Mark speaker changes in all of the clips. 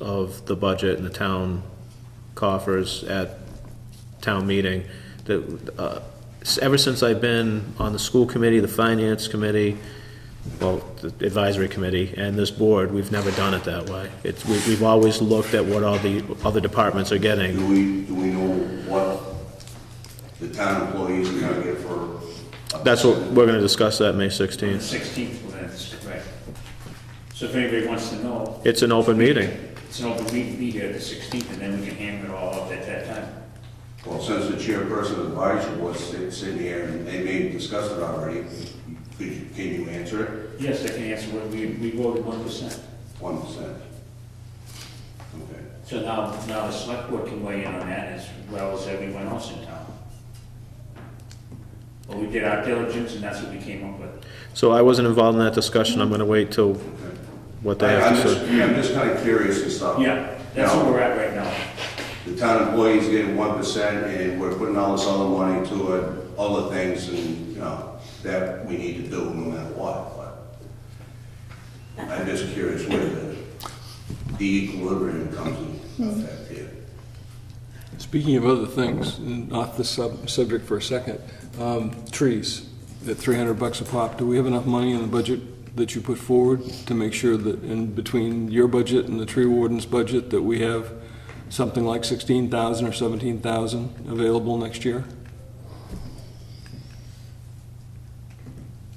Speaker 1: of the budget and the town coffers at town meeting, that, uh, s- ever since I've been on the school committee, the finance committee, well, the advisory committee and this board, we've never done it that way. It's, we- we've always looked at what all the other departments are getting.
Speaker 2: Do we, do we know what the town employees are gonna get for?
Speaker 1: That's what, we're gonna discuss that May 16th.
Speaker 3: Sixteenth, well, that's correct. So if anybody wants to know,
Speaker 1: It's an open meeting.
Speaker 3: it's an open meeting, be here the sixteenth, and then we can hammer it all out at that time.
Speaker 2: Well, since the chairperson of the advisory board sit- sitting here and they may discuss it already, could you, can you answer it?
Speaker 3: Yes, I can answer what we, we voted one percent.
Speaker 2: One percent. Okay.
Speaker 3: So now, now the select board can weigh in on that as well as everyone else in town. But we did our diligence, and that's what we came up with.
Speaker 1: So I wasn't involved in that discussion. I'm gonna wait till what they
Speaker 2: I-
Speaker 1: have
Speaker 2: I'm
Speaker 1: to
Speaker 2: just,
Speaker 1: say.
Speaker 2: I'm just kinda curious and stuff.
Speaker 3: Yeah, that's where
Speaker 2: Now,
Speaker 3: we're at right now.
Speaker 2: The town employees getting one percent and we're putting all this other money toward other things and, you know, that we need to do no matter what, but I'm just curious where the, the equilibrium comes in effect here.
Speaker 4: Speaking of other things, and off the sub, subject for a second, um, trees at three hundred bucks a pop, do we have enough money in the budget that you put forward to make sure that in between your budget and the tree warden's budget, that we have something like sixteen thousand or seventeen thousand available next year?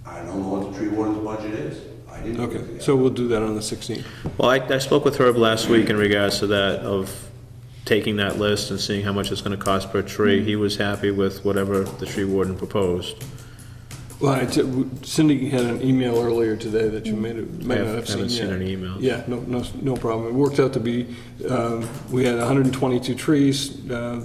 Speaker 2: I don't know what the tree warden's budget is. I didn't. look at
Speaker 4: Okay,
Speaker 2: that.
Speaker 4: so we'll do that on the sixteenth.
Speaker 1: Well, I, I spoke with Herb last week in regards to that, of taking that list and seeing how much it's gonna cost per tree. He was happy with whatever the tree warden proposed.
Speaker 4: Well, I t- Cindy had an email earlier today that you may have, may
Speaker 1: I
Speaker 4: not have seen
Speaker 1: Mm. haven't seen
Speaker 4: yet.
Speaker 1: any emails.
Speaker 4: Yeah, no, no, no problem. It worked out to be, um, we had 122 trees. uh,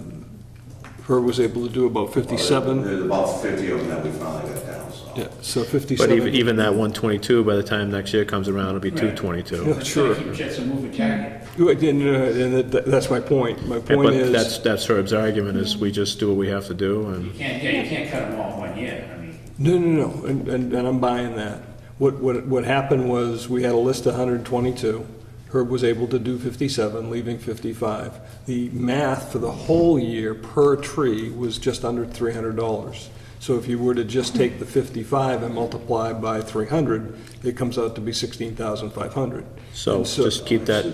Speaker 4: Herb was able to do about
Speaker 2: Well, there-
Speaker 4: 57.
Speaker 2: There's about fifty of them that we finally got down, so.
Speaker 4: Yeah, so
Speaker 1: But even,
Speaker 4: 57.
Speaker 1: even that one twenty-two, by the time next year comes around, it'll be two twenty-two.
Speaker 4: Yeah. Sure.
Speaker 3: Keep Jets a moving target.
Speaker 4: Who I didn't, uh, And that- that's my point. My point
Speaker 1: But that's,
Speaker 4: is,
Speaker 1: that's Herb's argument, is we just do what we have to do,
Speaker 3: You
Speaker 1: and
Speaker 3: can't, yeah, you can't cut them all in one year, I mean.
Speaker 4: no, no, no, and, and and I'm buying that. What, what, what happened was, we had a list of 122. Herb was able to do 57, leaving 55. The math for the whole year per tree was just under $300. So if you were to just take the 55 and multiply by 300, it comes out to be 16,500.
Speaker 1: so
Speaker 4: And
Speaker 1: just keep that,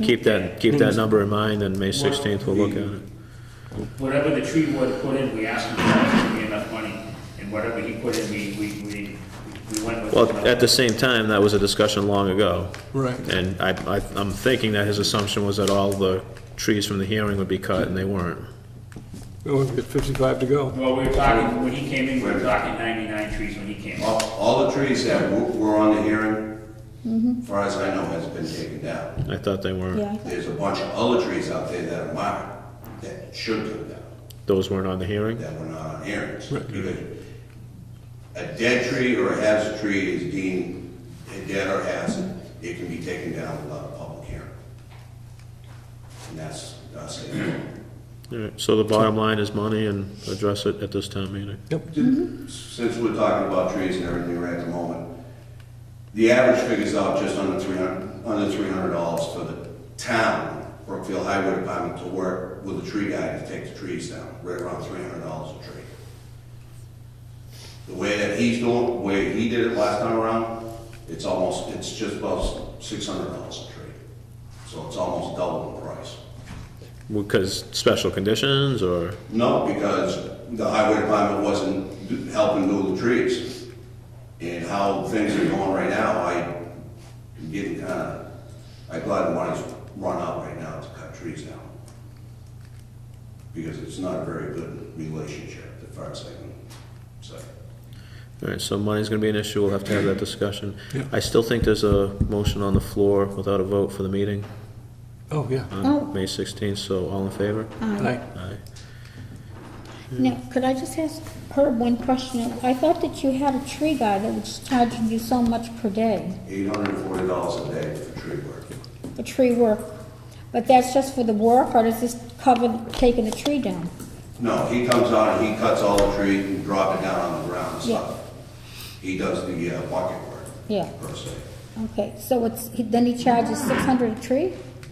Speaker 1: keep that, keep that number in mind, and May sixteenth we'll look at it.
Speaker 3: Whatever the tree ward put in, we asked him if there was gonna be enough money, and whatever he put in, we, we, we we went with.
Speaker 1: Well, at the same time, that was a discussion long ago.
Speaker 4: Right.
Speaker 1: And I, I, I'm thinking that his assumption was that all the trees from the hearing would be cut, and they weren't.
Speaker 4: Oh, we've got 55 to go.
Speaker 3: Well, we were talking, when he came in, we were talking ninety-nine trees when he came in.
Speaker 2: All, all the trees that were, were on the hearing, far as I know, has been taken down.
Speaker 1: I thought they weren't.
Speaker 5: Yeah,
Speaker 2: There's a bunch of other trees out there that are marked, that should come down.
Speaker 1: Those weren't on the hearing?
Speaker 2: that were not on hearings.
Speaker 4: Right.
Speaker 2: Because A dead tree or a hazard tree is deemed a dead or hazard, it can be taken down without a public hearing. And that's, that's it.
Speaker 1: All right, so the bottom line is money and address it at this town meeting.
Speaker 2: Since we're talking about trees and everything right at the moment, the average figures out just under three hundred, under three hundred dollars for the town, Brookfield Highway Department to work with a tree guy to take the trees down, right around three hundred dollars a tree. The way that he's doing, way he did it last time around, it's almost, it's just about six hundred dollars a tree. So it's almost double the price.
Speaker 1: Because special conditions, or,
Speaker 2: No, because the highway department wasn't do- helping do the trees. And how things are going right now, I am getting kind of, I glad the money's run out right now to cut trees down. Because it's not a very good relationship, as far as I can say.
Speaker 1: all right, so money's gonna be an issue, we'll have to have that discussion. I still think there's a motion on the floor without a vote for the meeting
Speaker 4: Oh, yeah.
Speaker 5: Oh. Uh.
Speaker 1: on May sixteenth, so all in favor?
Speaker 4: Aye.
Speaker 1: Aye.
Speaker 5: now, could I just ask Herb one question? I thought that you had a tree guy that was charging you so much per day
Speaker 2: Eight hundred and forty dollars a day for tree work.
Speaker 5: for tree work, but that's just for the work, or does this cover taking the tree down?
Speaker 2: No, he comes out and he cuts all the trees and drop it down on the ground and stuff. He does the uh, bucket work.
Speaker 5: Yeah.
Speaker 2: Per se.
Speaker 5: Okay, so it's, he- then he charges six hundred a tree?